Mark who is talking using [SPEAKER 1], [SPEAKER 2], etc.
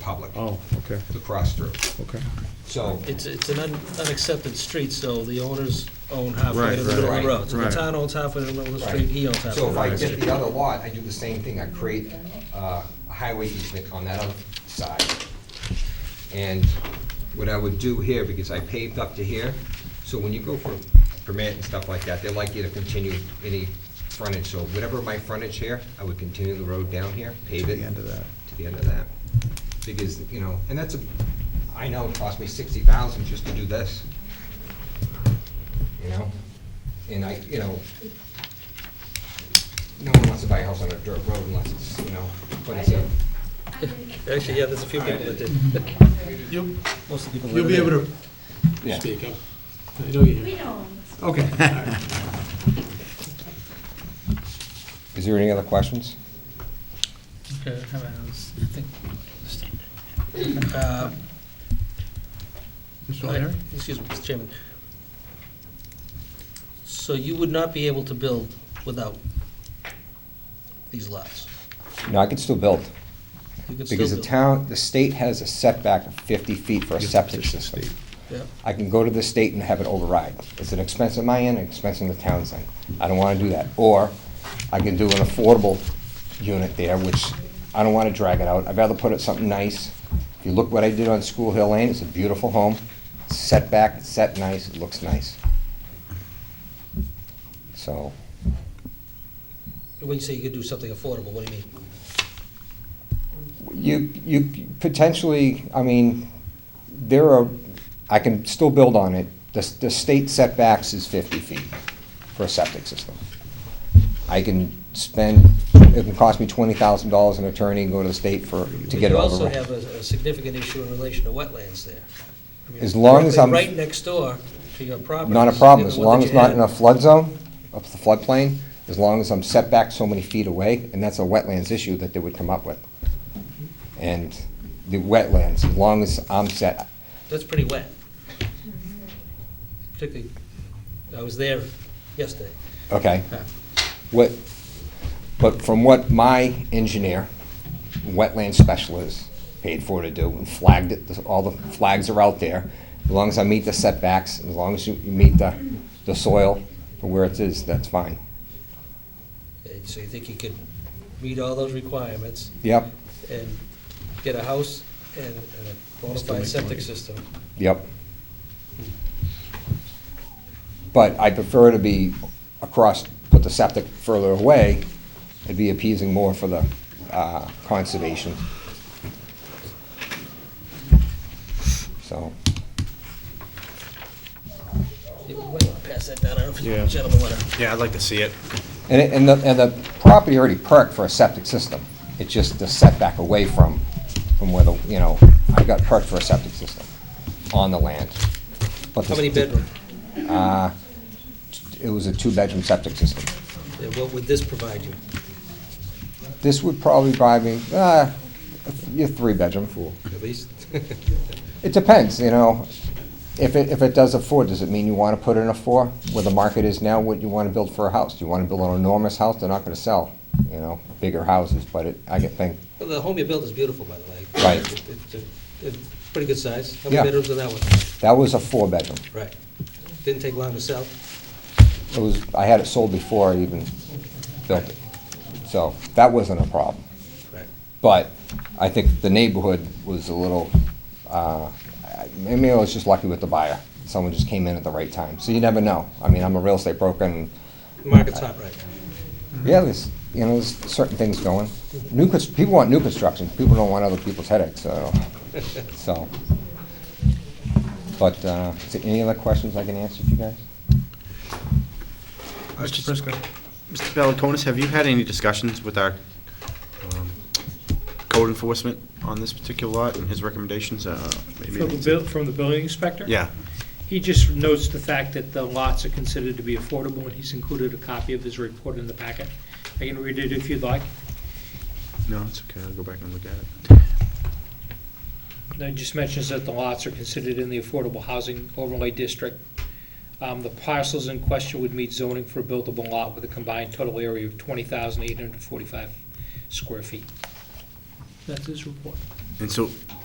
[SPEAKER 1] public,
[SPEAKER 2] Oh, okay,
[SPEAKER 1] the cross-through.
[SPEAKER 2] okay.
[SPEAKER 1] So,
[SPEAKER 3] It's, it's an un- unaccepted street, so the owners own halfway
[SPEAKER 2] Right,
[SPEAKER 3] to the middle of
[SPEAKER 1] right,
[SPEAKER 3] the road. So the
[SPEAKER 2] right.
[SPEAKER 3] town owns halfway to the middle of the
[SPEAKER 1] Right.
[SPEAKER 3] street, he owns halfway.
[SPEAKER 1] so
[SPEAKER 3] to
[SPEAKER 1] if
[SPEAKER 3] the
[SPEAKER 1] I
[SPEAKER 3] middle of the
[SPEAKER 1] get
[SPEAKER 3] street.
[SPEAKER 1] the other lot, I do the same thing, I create uh, a highway easement on that other side. And what I would do here, because I paved up to here, so when you go for permit and stuff like that, they like you to continue any frontage, so whatever my frontage here, I would continue the road down here, pave it.
[SPEAKER 2] the end of that.
[SPEAKER 1] To the end of that. Because, you know, and that's a, I know it cost me sixty thousand just to do this. You know, and I, you know, no one wants to buy a house on a dirt road unless it's, you know, but it's a,
[SPEAKER 3] Actually, yeah, there's a few people that did.
[SPEAKER 4] You'll,
[SPEAKER 3] Most of the people.
[SPEAKER 4] you'll be
[SPEAKER 3] live
[SPEAKER 4] able
[SPEAKER 3] there.
[SPEAKER 4] to speak up. I know you
[SPEAKER 5] We
[SPEAKER 4] have.
[SPEAKER 5] know.
[SPEAKER 4] Okay.
[SPEAKER 1] Is there any other questions?
[SPEAKER 3] Okay, hang on, let's think. Uh,
[SPEAKER 4] Mr. O'Leary?
[SPEAKER 3] Excuse me, Mr. Chairman. So you would not be able to build without these lots?
[SPEAKER 1] No, I could still build,
[SPEAKER 3] You could still
[SPEAKER 1] because the
[SPEAKER 3] build.
[SPEAKER 1] town, the state has a setback of fifty feet for a septic system.
[SPEAKER 3] Yeah.
[SPEAKER 1] I can go to the state and have it override. It's an expense on my end, an expense on the town's end. I don't wanna do that. Or I can do an affordable unit there, which I don't wanna drag it out. I'd rather put it something nice. If you look what I did on School Hill Lane, it's a beautiful home, setback, it's set nice, it looks nice. So,
[SPEAKER 3] When you say you could do something affordable, what do you mean?
[SPEAKER 1] You, you potentially, I mean, there are, I can still build on it. The, the state setbacks is fifty feet for a septic system. I can spend, it can cost me twenty thousand dollars an attorney and go to the state for, to get it
[SPEAKER 3] You also
[SPEAKER 1] over.
[SPEAKER 3] have a a significant issue in relation to wetlands there. I mean,
[SPEAKER 1] As long as
[SPEAKER 3] directly
[SPEAKER 1] I'm-
[SPEAKER 3] Right next door to your property.
[SPEAKER 1] Not a problem, as
[SPEAKER 3] the one
[SPEAKER 1] long
[SPEAKER 3] that
[SPEAKER 1] as
[SPEAKER 3] you
[SPEAKER 1] not
[SPEAKER 3] had.
[SPEAKER 1] in a flood zone, up the floodplain, as long as I'm set back so many feet away, and that's a wetlands issue that they would come up with. And the wetlands, as long as I'm set,
[SPEAKER 3] That's pretty wet. Particularly, I was there yesterday.
[SPEAKER 1] Okay. What, but from what my engineer, wetland specialist, paid for to do and flagged it, all the flags are out there. As long as I meet the setbacks, as long as you you meet the, the soil for where it is, that's fine.
[SPEAKER 3] And so you think you could meet all those requirements
[SPEAKER 1] Yep,
[SPEAKER 3] and get a house and and a bona fide septic system?
[SPEAKER 1] yep. But I prefer to be across, put the septic further away, it'd be appeasing more for the, uh, conservation. So.
[SPEAKER 3] You might wanna Pass that down, I don't know if
[SPEAKER 2] Yeah.
[SPEAKER 3] you gentlemen want to.
[SPEAKER 6] Yeah, I'd like to see it.
[SPEAKER 1] And, it- and the, and the property already perked for a septic system. It's just the setback away from, from where the, you know, I got perked for a septic system on the land. But
[SPEAKER 3] How
[SPEAKER 1] the-
[SPEAKER 3] many bedroom?
[SPEAKER 1] It was a two-bedroom septic system.
[SPEAKER 3] And what would this provide you?
[SPEAKER 1] This would probably buy me, uh, a three-bedroom. Fool.
[SPEAKER 3] At least,
[SPEAKER 1] It depends, you know. If it, if it does a four, does it mean you want to put in a four? Where the market is now, what you want to build for a house? Do you want to build an enormous house? They're not going to sell, you know, bigger houses, but it, I get think,
[SPEAKER 3] well, the home you built is beautiful, by the way.
[SPEAKER 1] Right.
[SPEAKER 3] It- It's a- it's pretty good size. How
[SPEAKER 1] Yeah.
[SPEAKER 3] many bedrooms in that one?
[SPEAKER 1] that was a four-bedroom.
[SPEAKER 3] Right. Didn't take long to sell.
[SPEAKER 1] It was, I had it sold before I even built it. So that wasn't a problem.
[SPEAKER 3] Right.
[SPEAKER 1] But I think the neighborhood was a little, uh, I- maybe I was just lucky with the buyer. Someone just came in at the right time. So you never know. I mean, I'm a real estate broker and,
[SPEAKER 3] Market's hot right now.
[SPEAKER 1] yeah, there's, you know, there's certain things going. New, cons- people want new construction. People don't want other people's headaches, so, so. But, uh, is there any other questions I can answer for you guys?
[SPEAKER 4] Mr. Prisco?
[SPEAKER 6] Mr. Valenconis, have you had any discussions with our um, code enforcement on this particular lot and his recommendations? Uh, maybe-
[SPEAKER 7] From the buil, from the building inspector?
[SPEAKER 6] Yeah,
[SPEAKER 7] He just notes the fact that the lots are considered to be affordable, and he's included a copy of his report in the packet. I can read it if you'd like.
[SPEAKER 6] no, it's okay, I'll go back and look at it.
[SPEAKER 7] And It just mentions that the lots are considered in the affordable housing overlay district. Um, the parcels in question would meet zoning for a buildable lot with a combined total area of twenty thousand eight hundred forty-five square feet. That's his report.
[SPEAKER 6] And so